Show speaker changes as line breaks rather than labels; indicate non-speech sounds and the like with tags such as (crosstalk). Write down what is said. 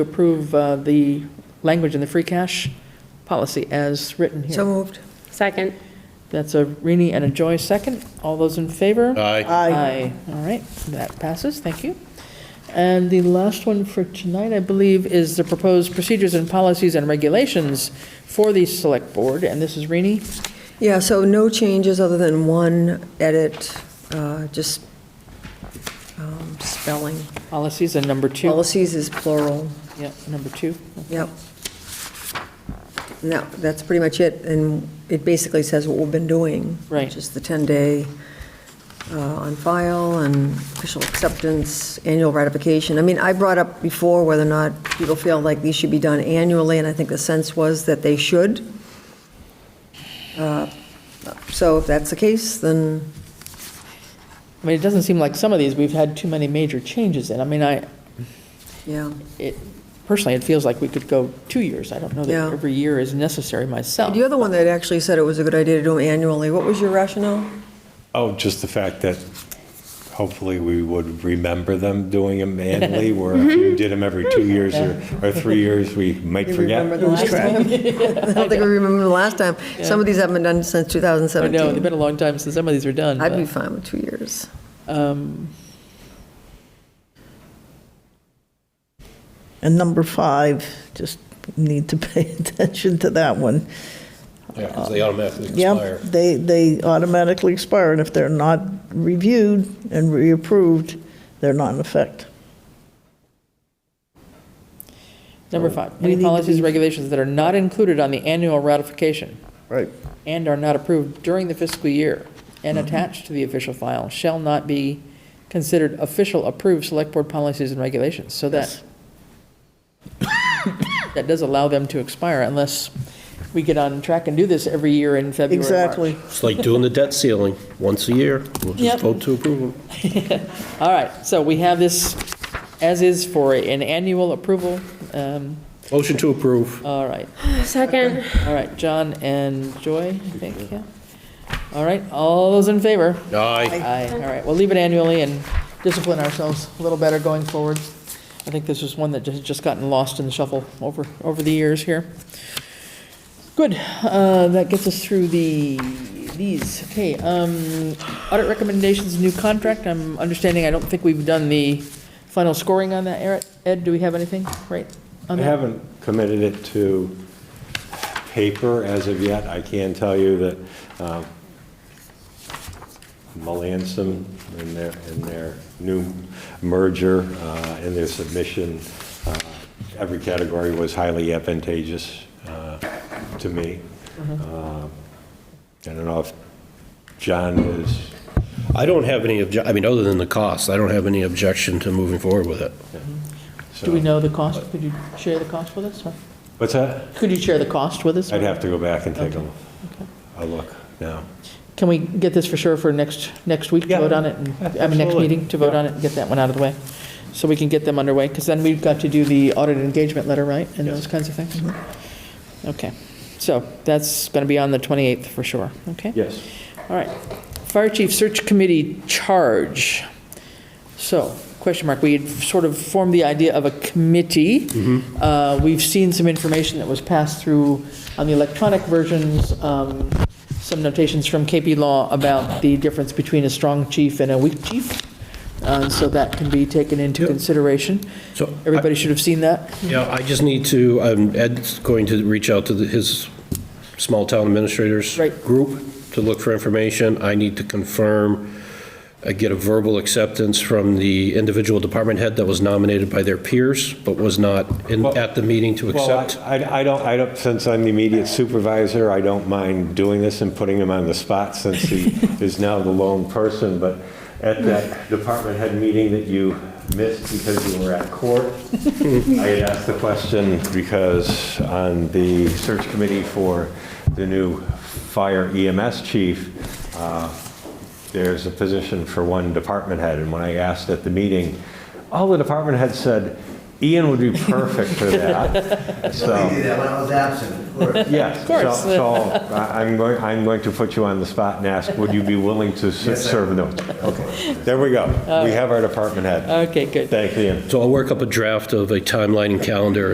approve uh, the language in the free cash policy as written
So
here.
moved.
Second.
That's a Rini and a Joy second. All those in favor?
Aye.
Aye. All right, that passes, thank you. And the last one for tonight, I believe, is the proposed procedures and policies and regulations for the select board, and this is Rini.
Yeah, so no changes other than one edit, uh, just um, spelling.
Policies and number two.
Policies is plural,
Yeah, number two.
yep. No, that's pretty much it, and it basically says what we've been doing.
Right.
Which is the 10-day uh, on file and official acceptance, annual ratification. I mean, I brought up before whether or not people feel like these should be done annually, and I think the sense was that they should. Uh, So if that's the case, then,
I mean, it doesn't seem like some of these, we've had too many major changes in. I mean, I,
yeah.
it, personally, it feels like we could go two years. I don't know
Yeah.
that every year is necessary myself.
The other one that actually said it was a good idea to do them annually, what was your rationale?
Oh, just the fact that hopefully we would remember them doing
(laughs)
them annually, where
Mm-hmm.
if you did them every two years or, or three years, we might
You
forget.
remember the last time? (laughs) I don't think we remember the last time. Some of these haven't been done since
I know, it's
2017.
been a long time since some of these were done.
I'd
but-
be fine with two years.
And number five, just need to pay (laughs) attention to that one.
Yeah, 'cause they automatically expire.
Yep, they, they automatically expire, and if they're not reviewed and reapproved, they're not in effect.
Number five,
We need
any
to
policies
be-
and regulations that are not included on the annual ratification
Right.
and are not approved during the fiscal year and
Mm-hmm.
attached to the official file shall not be considered official approved select board policies and regulations. So that, (coughs) that does allow them to expire unless we get on track and do this every year in February. March.
Exactly.
It's like doing the debt ceiling, once a year, we'll
Yep.
just vote to approve them.
All right, so we have this as is for an annual approval. Um,
Motion to approve.
All right,
Second.
all right, John and Joy, I think, yeah. All right, all those in favor?
Aye.
Aye, all right, we'll leave it annually and discipline ourselves a little better going forward. I think this is one that has just gotten lost in the shuffle over, over the years here. Good, uh, that gets us through the, these, okay, um, audit recommendations, new contract, I'm understanding, I don't think we've done the final scoring on that, Eric, Ed, do we have anything, right?
I
on that?
haven't committed it to paper as of yet. I can tell you that um, Melanson in their, in their new merger, uh, in their submission, uh, every category was highly advantageous uh, to me.
Uh-huh.
Uh, I don't know if John is,
I don't have any obje, I mean, other than the cost, I don't have any objection to moving forward with it.
so.
Do we know the cost, could you share the cost with us, or,
What's that?
could you share the cost with us?
I'd have to go back and take a, a look now.
Can we get this for sure for next, next week to
Yeah,
vote on it? and- I mean, next
absolutely.
meeting to vote on it and get that one out of the way? So we can get them underway, because then we've got to do the audit engagement letter, right? And those kinds of things? Okay, so that's going to be on the 28th for sure, okay?
Yes.
All right. Fire Chief Search Committee charge. So, question mark, we had sort of formed the idea of a committee.
Mm-hmm.
Uh, We've seen some information that was passed through on the electronic versions, um, some notations from KP Law about the difference between a strong chief and a weak chief. Uh, So that can be taken into consideration.
So I-
Everybody should have seen that.
Yeah, I just need to, um, Ed's going to reach out to the- his small town administrators
Right.
group to look for information. I need to confirm, I get a verbal acceptance from the individual department head that was nominated by their peers, but was not in,
Well-
at the meeting to
Well,
accept.
I- I I don't, I don't, since I'm the immediate supervisor, I don't mind doing this and putting him on the spot since he is now the lone person, but at that department head meeting that you missed because you were at court, I had asked the question because on the search committee for the new fire EMS chief, uh, there's a position for one department head, and when I asked at the meeting, all the department heads said, Ian would be perfect for that,
I
so.
did that when I was absent, of course.
Yes. Of
course.
So I- I'm going, I'm going to put you on the spot and ask, would you be willing to s- serve no? Okay, there we go. We have our department head.
Okay, good.
Thank you.
So I'll work up a draft of a timeline and calendar